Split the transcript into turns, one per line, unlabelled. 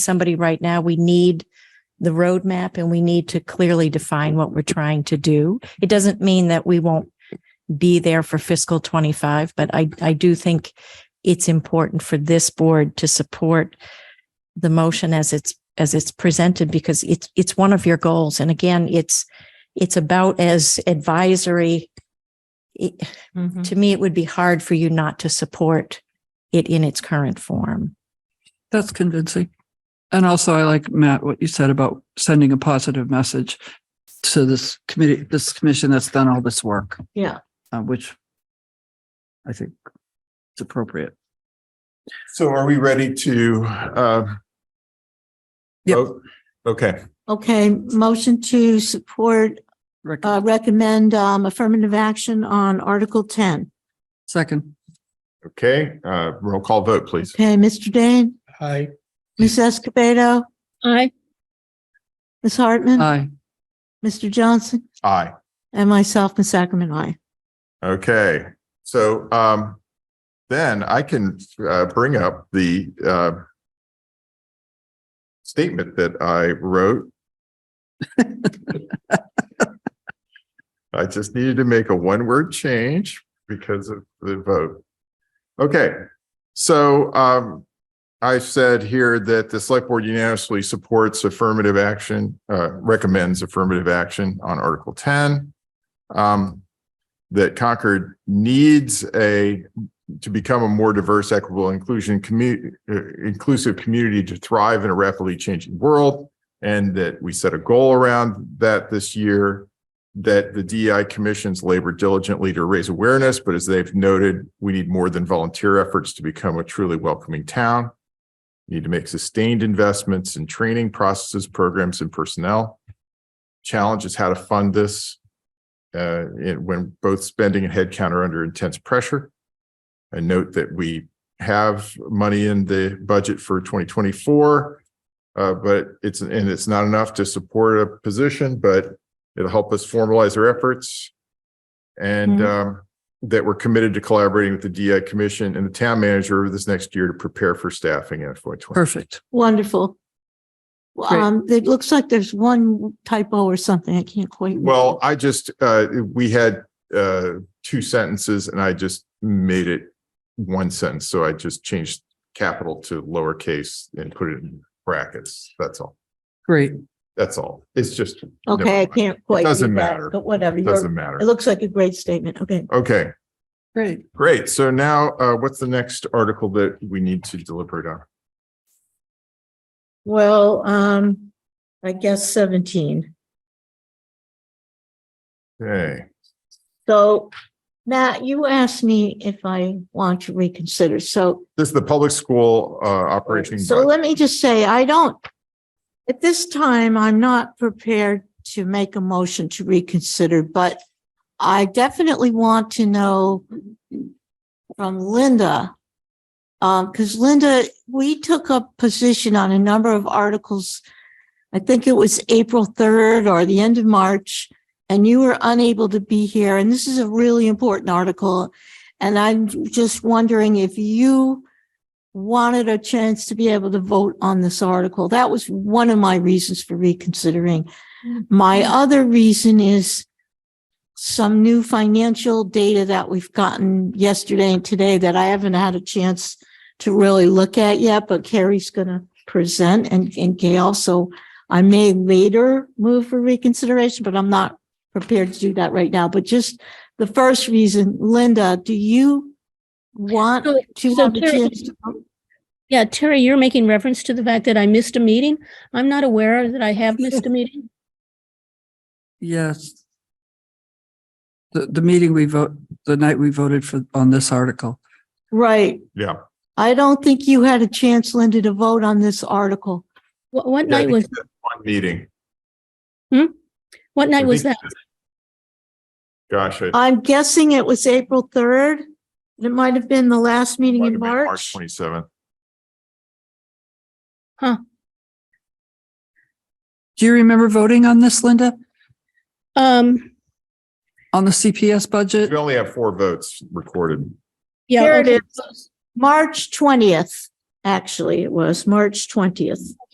somebody right now, we need the roadmap and we need to clearly define what we're trying to do. It doesn't mean that we won't be there for fiscal 25, but I, I do think it's important for this board to support the motion as it's, as it's presented because it's, it's one of your goals. And again, it's, it's about as advisory. It- To me, it would be hard for you not to support it in its current form.
That's convincing. And also I like Matt, what you said about sending a positive message to this committee, this commission that's done all this work.
Yeah.
Uh, which I think is appropriate.
So are we ready to, uh?
Yep.
vote? Okay,
Okay, motion to support,
Rick,
uh, recommend, um, affirmative action on Article ten.
second,
okay, uh, roll call vote, please.
Okay, Mr. Dane,
Hi.
Ms. Escobedo,
Aye.
Ms. Hartman,
aye,
Mr. Johnson,
Aye.
and myself, Ms. Sacramento, I.
Okay, so, um, then I can, uh, bring up the, uh, statement that I wrote. I just needed to make a one-word change because of the vote. Okay, so, um, I said here that the select board unanimously supports affirmative action, uh, recommends affirmative action on Article ten. Um, that Concord needs a, to become a more diverse, equitable, inclusion, commu- uh, inclusive community to thrive in a rapidly changing world. And that we set a goal around that this year, that the DEI commissions labor diligently to raise awareness, but as they've noted, we need more than volunteer efforts to become a truly welcoming town. Need to make sustained investments in training processes, programs, and personnel. Challenge is how to fund this uh, in- when both spending and headcount are under intense pressure. I note that we have money in the budget for 2024, uh, but it's, and it's not enough to support a position, but it'll help us formalize our efforts. And um, that we're committed to collaborating with the DI Commission and the town manager over this next year to prepare for staffing in FY twenty.
perfect.
Wonderful. Um, it looks like there's one typo or something. I can't quite. read.
Well, I just, uh, we had uh, two sentences and I just made it one sentence. So I just changed capital to lowercase and put it in brackets. That's all.
Great.
That's all. It's just. never
Okay, I
mind.
can't quite.
doesn't
read that,
matter.
But whatever,
It
you're-
Doesn't matter.
it looks like a great statement. Okay.
Okay,
Great.
great. So now uh, what's the next article that we need to deliberate on?
Well, um, I guess seventeen.
Okay,
So Matt, you asked me if I want to reconsider. So
this is the public school uh, operating.
So
budget.
let me just say, I don't, at this time, I'm not prepared to make a motion to reconsider, but I definitely want to know from Linda. Um, because Linda, we took a position on a number of articles. I think it was April 3rd or the end of March, and you were unable to be here. And this is a really important article. And I'm just wondering if you wanted a chance to be able to vote on this article. That was one of my reasons for reconsidering.
Mm-hmm.
My other reason is some new financial data that we've gotten yesterday and today that I haven't had a chance to really look at yet, but Carrie's gonna present and, and Gail, so I may later move for reconsideration, but I'm not prepared to do that right now. But just the first reason, Linda, do you want
So-
to
so
have a
Carrie-
chance to vote?
Yeah, Terry, you're making reference to the fact that I missed a meeting. I'm not aware that I have missed a meeting.
Yes. The, the meeting we vote, the night we voted for, on this article.
Right.
Yeah.
I don't think you had a chance, Linda, to vote on this article.
What, what
Yeah, I
night
think
was,
that's One meeting.
what
I
night was
think-
that?
Gosh. it
I'm guessing it was April 3rd. and It might have been the last meeting
might have
in
been
March.
Twenty-seventh.
Do you remember voting on this, Linda?
Um,
On the CPS budget?
We only have four votes recorded.
yeah.
Here it
okay.
is. March 20th, actually, it was March 20th.